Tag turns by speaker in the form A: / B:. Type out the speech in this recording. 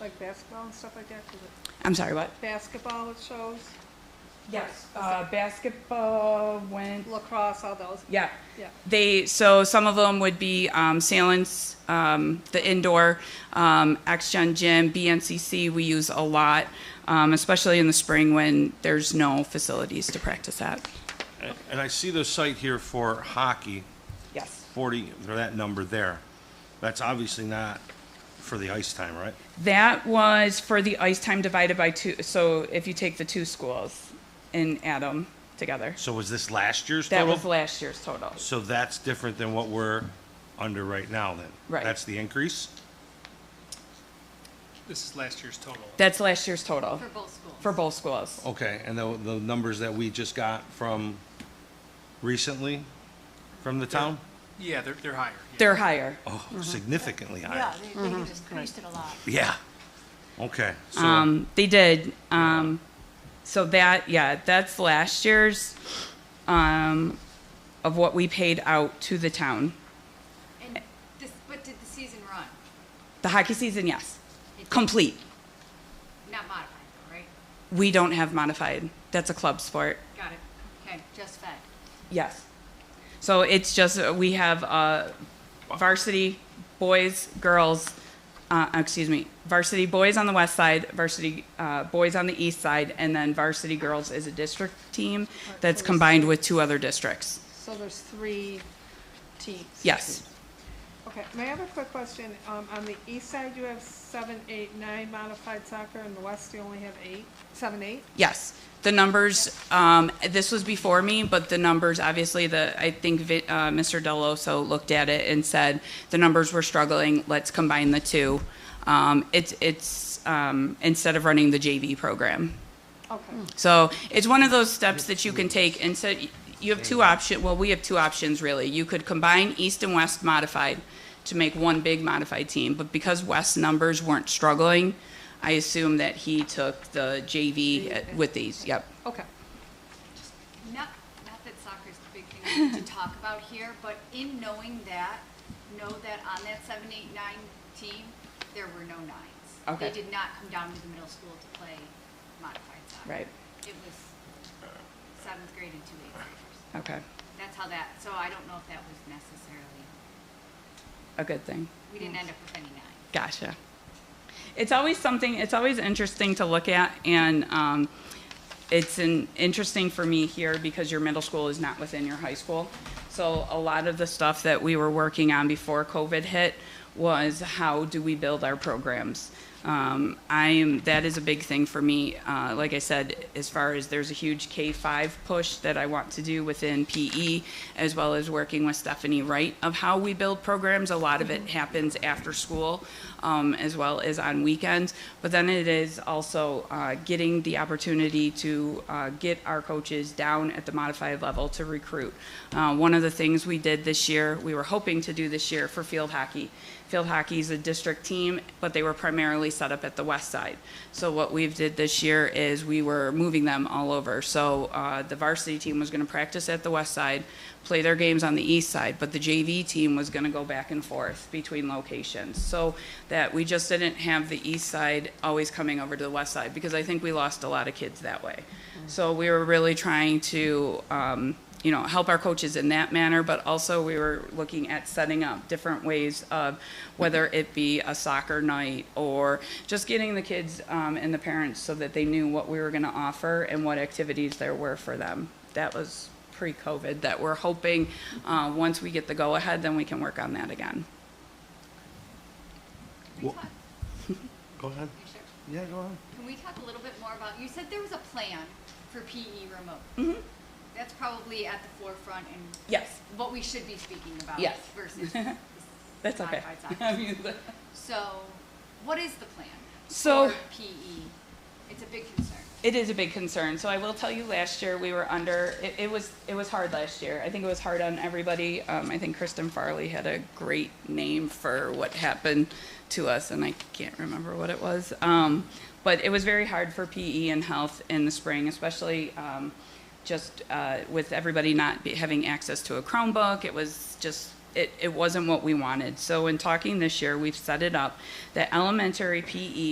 A: like basketball and stuff like that? 'Cause it-
B: I'm sorry, what?
A: Basketball it shows,
B: Yes, uh, basketball went,
A: lacrosse, all those,
B: yeah.
A: yeah.
B: They, so some of them would be um, Salins, um, the indoor, um, Gen Gym, BNCC, we use a lot, um, especially in the spring when there's no facilities to practice at.
C: And- And I see the site here for hockey,
B: Yes.
C: 40, or that number there. That's obviously not for the ice time, right?
B: That was for the ice time divided by two, so if you take the two schools and add them together.
C: So was this last year's
B: That
C: total?
B: was last year's total.
C: So that's different than what we're under right now, then?
B: Right.
C: That's the increase?
D: This is last year's total.
B: That's last year's total
E: For both schools.
B: for both schools.
C: Okay, and the, the numbers that we just got from recently, from the town?
D: Yeah, they're, they're higher. yeah.
B: They're higher.
C: Oh, significantly
E: Yeah,
C: higher.
E: they, they
B: Mm-hmm.
E: just increased it a lot.
C: Yeah. Okay, so,
B: Um, they did. Um, so that, yeah, that's last year's, um, of what we paid out to the town.
E: And this, but did the season run?
B: The hockey season, yes,
E: It did.
B: complete.
E: Not modified though, right?
B: We don't have modified. That's a club sport.
E: Got it. Okay, just fed.
B: Yes. So it's just, uh, we have, uh, varsity boys, girls, uh, excuse me, varsity boys on the west side, varsity, uh, boys on the east side, and then varsity girls is a district team that's combined with two other districts.
A: So there's three teams.
B: Yes.
A: Okay, may I have a quick question? Um, on the east side, you have seven, eight, nine modified soccer, and the west, you only have eight, seven, eight?
B: Yes, the numbers, um, this was before me, but the numbers, obviously, the, I think Vi- uh, Mr. Deloso looked at it and said, the numbers were struggling, let's combine the two. Um, It's, it's, um, instead of running the JV program.
A: Okay,
B: So it's one of those steps that you can take and so you have two option, well, we have two options really. You could combine East and West modified to make one big modified team, but because West numbers weren't struggling, I assume that he took the JV at- with these, yep.
A: okay.
E: Not, not that soccer's the big thing to talk about here, but in knowing that, know that on that seven, eight, nine team, there were no nines.
B: Okay.
E: They did not come down to the middle school to play modified soccer.
B: Right.
E: It was seventh grade and two eighth graders.
B: Okay,
E: That's how that, so I don't know if that was necessarily,
B: a good thing.
E: we didn't
B: Hmm.
E: end up with any nines.
B: Gotcha. It's always something, it's always interesting to look at, and um, it's an, interesting for me here because your middle school is not within your high school. So a lot of the stuff that we were working on before COVID hit was how do we build our programs? Um, I am, that is a big thing for me. Uh, like I said, as far as there's a huge K-5 push that I want to do within PE, as well as working with Stephanie Wright of how we build programs. A lot of it happens after school, um, as well as on weekends. But then it is also uh, getting the opportunity to uh, get our coaches down at the modified level to recruit. Uh, one of the things we did this year, we were hoping to do this year for field hockey. Field hockey is a district team, but they were primarily set up at the west side. So what we've did this year is we were moving them all over. So uh, the varsity team was going to practice at the west side, play their games on the east side, but the JV team was going to go back and forth between locations. So that we just didn't have the east side always coming over to the west side because I think we lost a lot of kids that way. So we were really trying to. Um, you know, help our coaches in that manner, but also we were looking at setting up different ways of whether it be a soccer night or just getting the kids um, and the parents so that they knew what we were going to offer and what activities there were for them. That was pre COVID that we're hoping uh, once we get the go ahead, then we can work on that again.
E: Can we
C: Wha-
E: talk,
C: go ahead.
E: you sure?
C: Yeah, go ahead.
E: Can we talk a little bit more about, you said there was a plan for PE remote.
B: Mm-hmm.
E: That's probably at the forefront and
B: Yes,
E: what we should be speaking about
B: Yes.
E: versus
B: that's okay.
E: modified soccer. So, what is the plan
B: So-
E: for PE? It's a big concern.
B: It is a big concern. So I will tell you, last year we were under. It, it was it was hard last year. I think it was hard on everybody. Um, I think Kristen Farley had a great name for what happened to us, and I can't remember what it was. Um, but it was very hard for PE and health in the spring, especially. Um, just uh, with everybody not be, having access to a Chromebook, it was just it, it wasn't what we wanted. So in talking this year, we've set it up that elementary E PE